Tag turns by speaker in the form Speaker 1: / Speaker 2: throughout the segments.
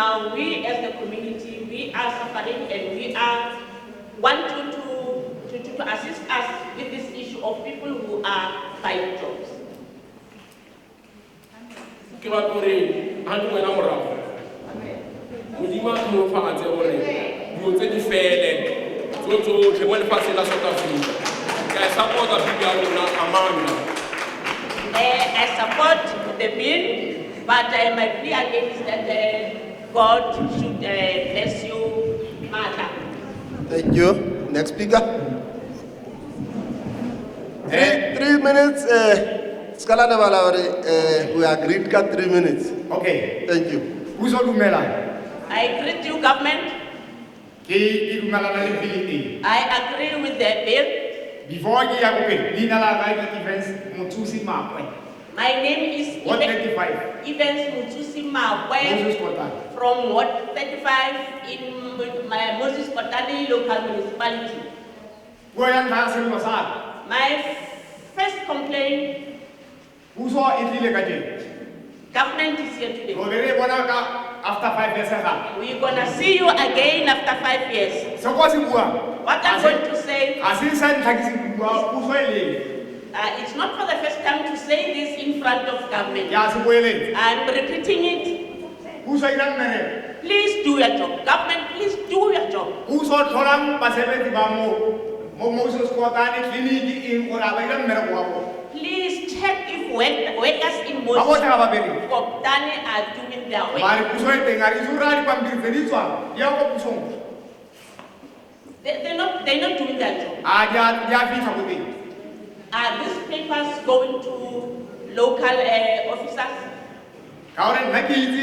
Speaker 1: now we as the community, we are suffering and we are want you to, to, to, to assist us with this issue of people who are five jobs.
Speaker 2: ke batla gore ga ke wena morago modimo a tlhonofatse gore dilo tse di fele tso tsotlhe mo lefatsheng la south africa ka e support-a bibi ya rona amanda
Speaker 1: Uh, I support the bill, but uh, my plea again is that uh, God should uh, bless you, Mother.
Speaker 3: Thank you. Next speaker. Three, three minutes, eh, skala ne bala hore, eh, we agreed ka three minutes.
Speaker 4: Okay,
Speaker 3: Thank you.
Speaker 4: o zo dumela.
Speaker 1: I greet you, government.
Speaker 4: Ke ke dumelana le bill e.
Speaker 1: I agree with the bill.
Speaker 4: Before ke ya kope, leina la Ride Events Mothusi Makwe,
Speaker 1: My name is
Speaker 4: Ward
Speaker 1: Even-
Speaker 4: 35,
Speaker 1: Evans Mutusi
Speaker 4: Moses
Speaker 1: Mawe
Speaker 4: Kotane.
Speaker 1: from Ward 35 in Mo- my Moses Kotani local municipality.
Speaker 4: Puo ya ntlha ya selemo sa
Speaker 1: My first complaint,
Speaker 4: puso e tlile ka teng.
Speaker 1: government is here today.
Speaker 4: Robe re e bona ka after five years e gape.
Speaker 1: We're gonna see you again after five years.
Speaker 4: Se ko se buang,
Speaker 1: What I'm going to say,
Speaker 4: ga se sa ntlha ke se buang, puso e leng.
Speaker 1: uh, it's not for the first time to say this in front of
Speaker 4: Ke
Speaker 1: government.
Speaker 4: a se boeletse.
Speaker 1: I'm repeating it.
Speaker 4: Puso e dira mmereko.
Speaker 1: Please do your job. Government, please do your job.
Speaker 4: Puso e tlholang basebetsi ba mo- mo Moses Kotane, tleliniki eng, gore a ba dira mmereko wa bona.
Speaker 1: Please check if work- workers in
Speaker 4: Ba botlhe
Speaker 1: Moses
Speaker 4: ga ba bereke.
Speaker 1: Koptani are doing their work.
Speaker 4: mare puso e teng a re itse gore a dipampiri tse di tswang di ya ko pusong
Speaker 1: They, they're not, they're not doing their job.
Speaker 4: a di a di a fitlha ko teng
Speaker 1: Are these papers going to local uh, officers?
Speaker 4: ka gore nna ke itse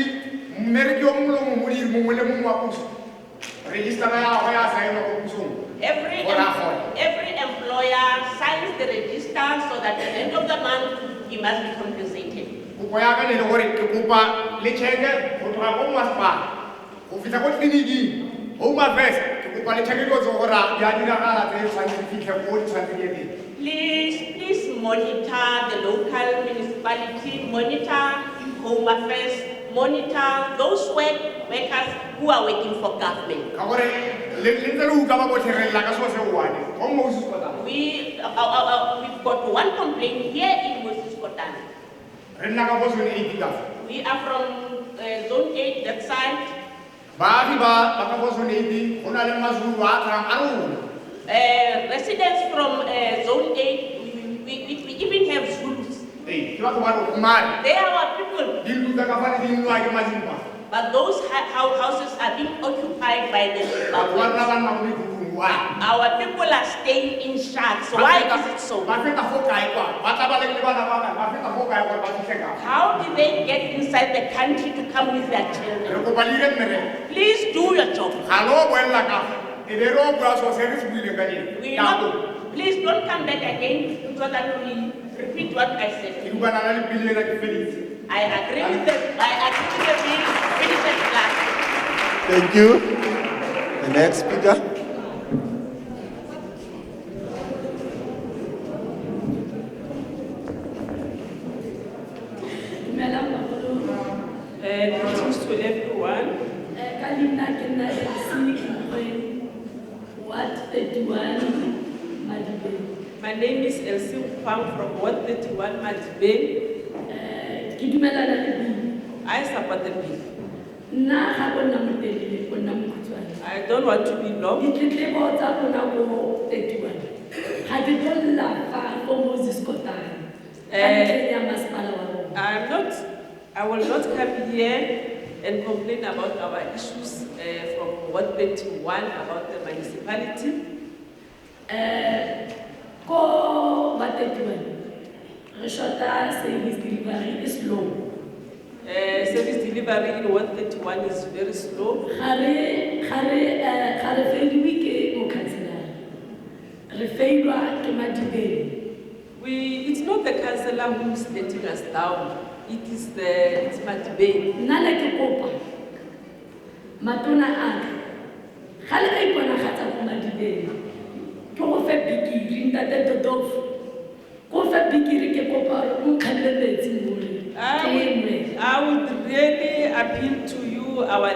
Speaker 4: mmereki yo mongwe le mongwe o dire mongwe le mongwe wa puso registera ya go ya saenwa ko pusong
Speaker 1: Every,
Speaker 4: What happened?
Speaker 1: every employer signs the register so that at the end of the month, he must be compensated.
Speaker 4: kopo ya ka ne le gore ke kopa le cheque go tloga ko masepala go fitlha ko tleliniking home affairs ke kopa le cheque ko tse gore a di a diragala tse tshwanetse di fitlhe ko di tshwanetse di ye teng
Speaker 1: Please, please monitor the local municipality, monitor home affairs, monitor those work workers who are working for government.
Speaker 4: ka gore le le ntse le utlwa ba botlhegelela ka seo se one go mo o se se kwatang
Speaker 1: We, uh, uh, uh, we've got one complaint here in Moses Kotane.
Speaker 4: re nna ka bosone eighty kafa
Speaker 1: We are from uh, zone eight, that side.
Speaker 4: baagi ba ba ka bosonedi go na le mazulu a tlang a rona
Speaker 1: Uh, residents from uh, zone eight, we, we, we even have Zulus.
Speaker 4: ee ke batho ba rona mare
Speaker 1: They are our people,
Speaker 4: dintlo tsa ka fane di nnwa ke mazimba
Speaker 1: but those ha- hou- houses are being occupied by the
Speaker 4: batho ba rona
Speaker 1: Zimbabweans.
Speaker 4: ba nna mo mekhukhung why
Speaker 1: Our people are staying in shacks.
Speaker 4: Ba
Speaker 1: Why
Speaker 4: feta-
Speaker 1: is it so?
Speaker 4: ba feta fo kae kwa ba tla ba le le bana ba kae ba feta fo kae gore ba fitlhe ka
Speaker 1: How did they get inside the country to come with their
Speaker 4: re
Speaker 1: children?
Speaker 4: kopa leire mmereko
Speaker 1: Please do your job.
Speaker 4: ga le o boelela ka e be re o bua seo se re se buileng ka
Speaker 1: We
Speaker 4: eng nako
Speaker 1: not, please don't come back again so that we repeat what I
Speaker 4: ke
Speaker 1: said.
Speaker 4: dubana le lepile ena ke feditse
Speaker 1: I agree with the, I agree with the bill, finish it last.
Speaker 3: Thank you. The next speaker.
Speaker 5: Dumelang bagolo.
Speaker 6: Uh, greetings to everyone.
Speaker 5: Eh, ka leina ke nna Leslie Kgwebo, Ward 31, Madibeng.
Speaker 6: My name is Elsie Kwang from Ward 31 Madibe.
Speaker 5: Eh, ke dumelana le bile
Speaker 6: I support the bill.
Speaker 5: nna ga bona motelele bona mokhutswane
Speaker 6: I don't want to be long.
Speaker 5: ditletlebo tsa bona ko 31 ga di tlolla fa ko moses kotane ka
Speaker 6: Eh.
Speaker 5: ntlheng ya masepala wa rona
Speaker 6: I'm not, I will not come here and complain about our issues uh, from Ward 31 about the municipality.
Speaker 5: Eh, ko ba 31 re shota service delivery e is low
Speaker 6: Uh, service delivery in Ward 31 is very slow.
Speaker 5: ga re ga re eh, ga re failwe ke mokhanselara re failwa ke madibeng
Speaker 6: We, it's not the councillor who is letting us down. It is the, it's Madibe.
Speaker 5: nna le ke kopa matona a ka ga le ka iponagatsa ko madibeng ke go fe bikiri ntate dodofo ko fe bikiri ke kopa gore o nkgalle metsi more
Speaker 6: I
Speaker 1: آه،
Speaker 5: ke nwe
Speaker 6: would, I would really appeal to you, our